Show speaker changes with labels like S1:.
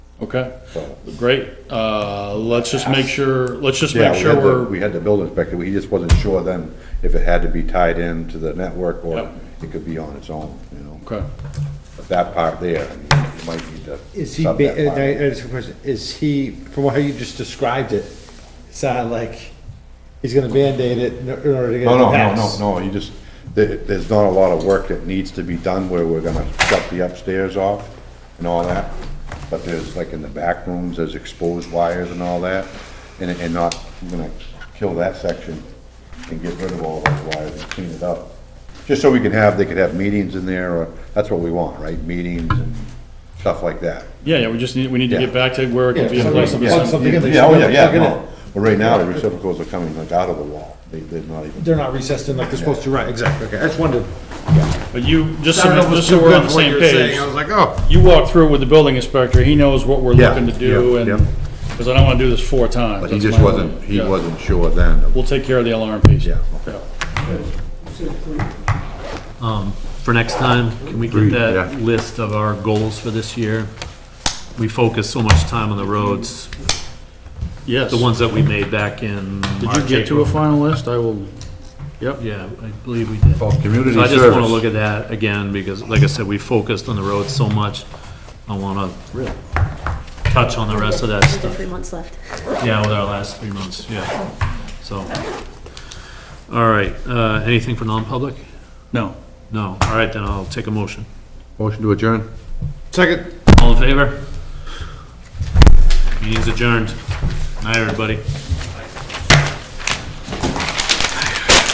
S1: Okay,
S2: So-
S1: great. Uh, let's just make sure, let's just
S2: Yeah,
S1: make
S2: we
S1: sure
S2: had the,
S1: we're,
S2: we had the building inspector, he just wasn't sure then if it had to be tied into the network or
S1: Yep.
S2: it could be on its own, you know?
S1: okay.
S2: But that part there, I mean, you might need to.
S3: Is he,
S2: sub
S3: ba- uh,
S2: that
S3: and I,
S2: part.
S3: I just have a question, is he, from how you just described it, it sounded like he's gonna Band-Aid it in order to get it
S2: No, no, no, no,
S3: passed.
S2: no, you just, there, there's not a lot of work that needs to be done where we're gonna shut the upstairs off and all that. But there's, like in the back rooms, there's exposed wires and all that, and, and not, we're gonna kill that section and get rid of all those wires and clean it up. Just so we can have, they could have meetings in there, or, that's what we want, right? Meetings and stuff like that.
S1: Yeah, yeah, we just need, we need to
S2: Yeah.
S1: get back to where it
S3: Yeah,
S1: can be in
S3: so
S1: place.
S3: like- Plug something in, they
S2: Yeah, oh, yeah,
S3: should
S2: yeah,
S3: plug it in.
S2: no. Well, right now, the receptacles are coming like out of the wall, they, they're not even.
S3: They're not recessed in like they're supposed to, right, exactly, okay, I just wondered.
S1: But you, just
S3: I don't know
S1: so,
S3: if it was
S1: just so
S3: too
S1: we're
S3: good
S1: on the
S3: for what
S1: same
S3: you were
S1: page.
S3: saying. I was like, oh.
S1: You walk through with the building inspector, he knows what we're
S2: Yeah,
S1: looking to do
S2: yeah,
S1: and,
S2: yeah.
S1: because I don't want to do this four times.
S2: But he
S1: That's
S2: just
S1: my
S2: wasn't,
S1: only-
S2: he
S1: yeah.
S2: wasn't sure then.
S1: We'll take care of the alarm piece.
S2: Yeah.
S4: for next time, can we get
S2: Agreed,
S4: that
S2: yeah.
S4: list of our goals for this year? We focus so much time on the roads,
S1: Yes.
S4: the ones that we made back in
S1: Did you
S4: March,
S1: get to a
S4: April.
S1: final list? I will, yep.
S4: Yeah, I believe we did.
S2: Well, community
S4: So I just want to look
S2: service,
S4: at that again, because like I said, we focused on the roads so much, I want to touch on the rest of that
S5: We've got
S4: stuff.
S5: three months left.
S4: Yeah, with our last three months, yeah. So, all right, uh, anything for non-public?
S1: No.
S4: No, all right, then I'll take a motion.
S2: motion to adjourn?
S3: Second.
S4: All in favor? Meeting's adjourned. Night, everybody.